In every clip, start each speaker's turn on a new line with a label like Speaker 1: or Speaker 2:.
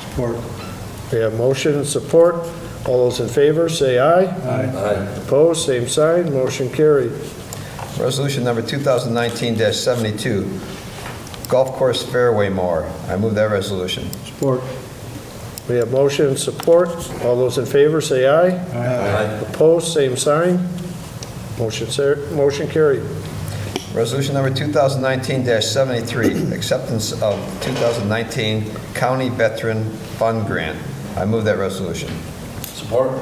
Speaker 1: Support.
Speaker 2: We have motion and support. All those in favor, say aye.
Speaker 1: Aye.
Speaker 2: Opposed, same sign, motion carried.
Speaker 3: Resolution number 2019-72, golf course fairway mower. I move that resolution.
Speaker 1: Support.
Speaker 2: We have motion and support. All those in favor, say aye.
Speaker 3: Aye.
Speaker 2: Opposed, same sign, motion ser- motion carried.
Speaker 3: Resolution number 2019-73, acceptance of 2019 County Veteran Fund Grant. I move that resolution.
Speaker 4: Support.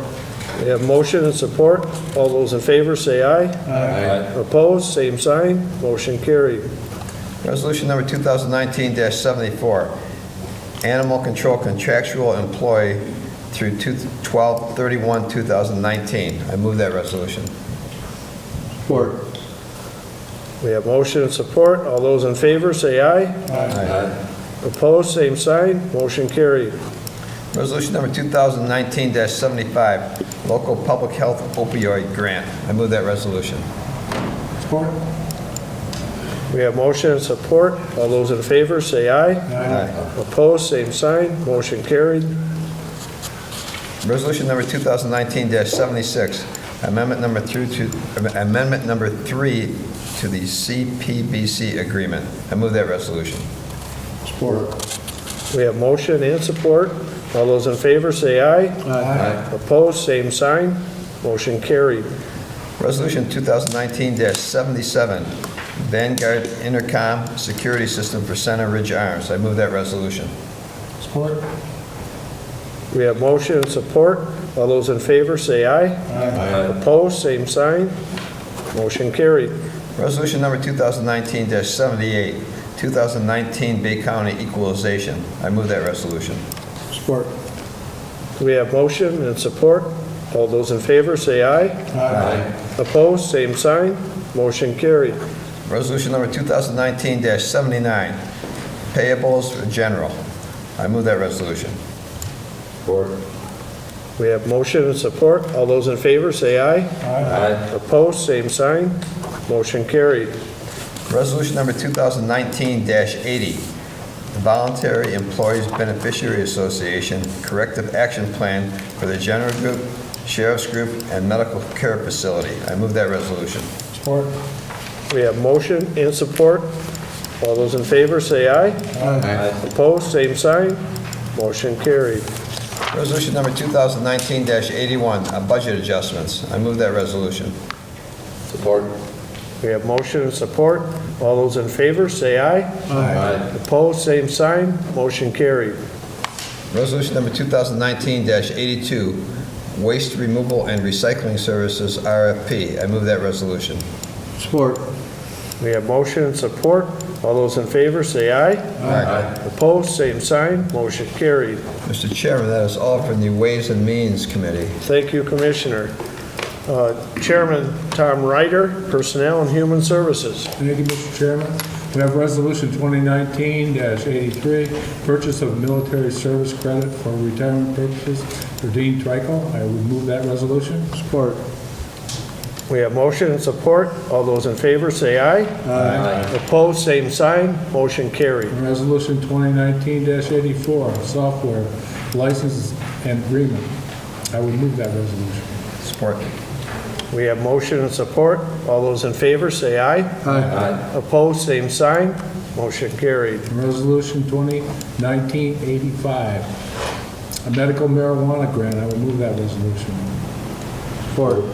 Speaker 2: We have motion and support. All those in favor, say aye.
Speaker 4: Aye.
Speaker 2: Opposed, same sign, motion carried.
Speaker 3: Resolution number 2019-74, animal control contractual employee through 12 2019 I move that resolution.
Speaker 1: Support.
Speaker 2: We have motion and support. All those in favor, say aye.
Speaker 4: Aye.
Speaker 2: Opposed, same sign, motion carried.
Speaker 3: Resolution number 2019-75, local public health opioid grant. I move that resolution.
Speaker 1: Support.
Speaker 2: We have motion and support. All those in favor, say aye.
Speaker 3: Aye.
Speaker 2: Opposed, same sign, motion carried.
Speaker 3: Resolution number 2019-76, amendment number through to, amendment number three to the CPBC agreement. I move that resolution.
Speaker 1: Support.
Speaker 2: We have motion and support. All those in favor, say aye.
Speaker 1: Aye.
Speaker 2: Opposed, same sign, motion carried.
Speaker 3: Resolution 2019-77, Vanguard Intercom Security System for Center Ridge Arms. I move that resolution.
Speaker 1: Support.
Speaker 2: We have motion and support. All those in favor, say aye.
Speaker 1: Aye.
Speaker 2: Opposed, same sign, motion carried.
Speaker 3: Resolution number 2019-78, 2019 Bay County Equalization. I move that resolution.
Speaker 1: Support.
Speaker 2: We have motion and support. All those in favor, say aye.
Speaker 4: Aye.
Speaker 2: Opposed, same sign, motion carried.
Speaker 3: Resolution number 2019-79, Payables for General. I move that resolution.
Speaker 4: Support.
Speaker 2: We have motion and support. All those in favor, say aye.
Speaker 4: Aye.
Speaker 2: Opposed, same sign, motion carried.
Speaker 3: Resolution number 2019-80, Voluntary Employees Beneficiary Association Corrective Action Plan for the General Group, Sheriff's Group, and Medical Care Facility. I move that resolution.
Speaker 1: Support.
Speaker 2: We have motion and support. All those in favor, say aye.
Speaker 4: Aye.
Speaker 2: Opposed, same sign, motion carried.
Speaker 3: Resolution number 2019-81, uh, Budget Adjustments. I move that resolution.
Speaker 4: Support.
Speaker 2: We have motion and support. All those in favor, say aye.
Speaker 4: Aye.
Speaker 2: Opposed, same sign, motion carried.
Speaker 3: Resolution number 2019-82, Waste Removal and Recycling Services RFP. I move that resolution.
Speaker 1: Support.
Speaker 2: We have motion and support. All those in favor, say aye.
Speaker 4: Aye.
Speaker 2: Opposed, same sign, motion carried.
Speaker 3: Mr. Chairman, that is all from the Ways and Means Committee.
Speaker 2: Thank you, Commissioner. Uh, Chairman Tom Ryder, Personnel and Human Services.
Speaker 5: Thank you, Mr. Chairman. We have Resolution 2019-83, purchase of military service credit for retirement purposes for Dean Trico. I would move that resolution.
Speaker 1: Support.
Speaker 2: We have motion and support. All those in favor, say aye.
Speaker 4: Aye.
Speaker 2: Opposed, same sign, motion carried.
Speaker 5: And Resolution 2019-84, software license and agreement. I would move that resolution.
Speaker 3: Support.
Speaker 2: We have motion and support. All those in favor, say aye.
Speaker 4: Aye.
Speaker 2: Opposed, same sign, motion carried.
Speaker 5: And Resolution 2019-85, a medical marijuana grant. I would move that resolution.
Speaker 1: Support.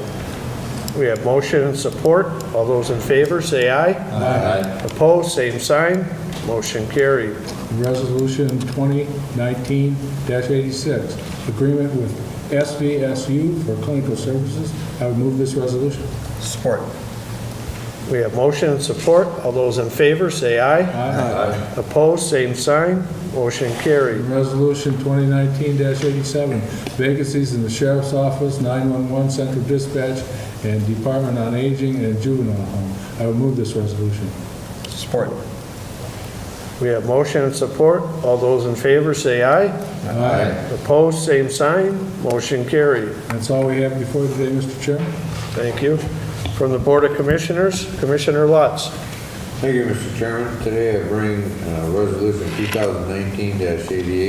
Speaker 2: We have motion and support. All those in favor, say aye.
Speaker 4: Aye.
Speaker 2: Opposed, same sign, motion carried.
Speaker 5: Resolution 2019-86, agreement with SVSU for clinical services. I would move this resolution.
Speaker 3: Support.
Speaker 2: We have motion and support. All those in favor, say aye.
Speaker 5: Aye.
Speaker 2: Opposed, same sign, motion carried.
Speaker 5: Resolution 2019-87, vacancies in the sheriff's office, 911 central dispatch, and Department on Aging and Juvenile Home. I would move this resolution.
Speaker 3: Support.
Speaker 2: We have motion and support. All those in favor, say aye.
Speaker 5: Aye.
Speaker 2: Opposed, same sign, motion carried.
Speaker 5: That's all we have before today, Mr. Chairman.
Speaker 2: Thank you. From the Board of Commissioners, Commissioner Lutz.
Speaker 4: Thank you, Mr. Chairman. Today I bring uh, Resolution 2019-88,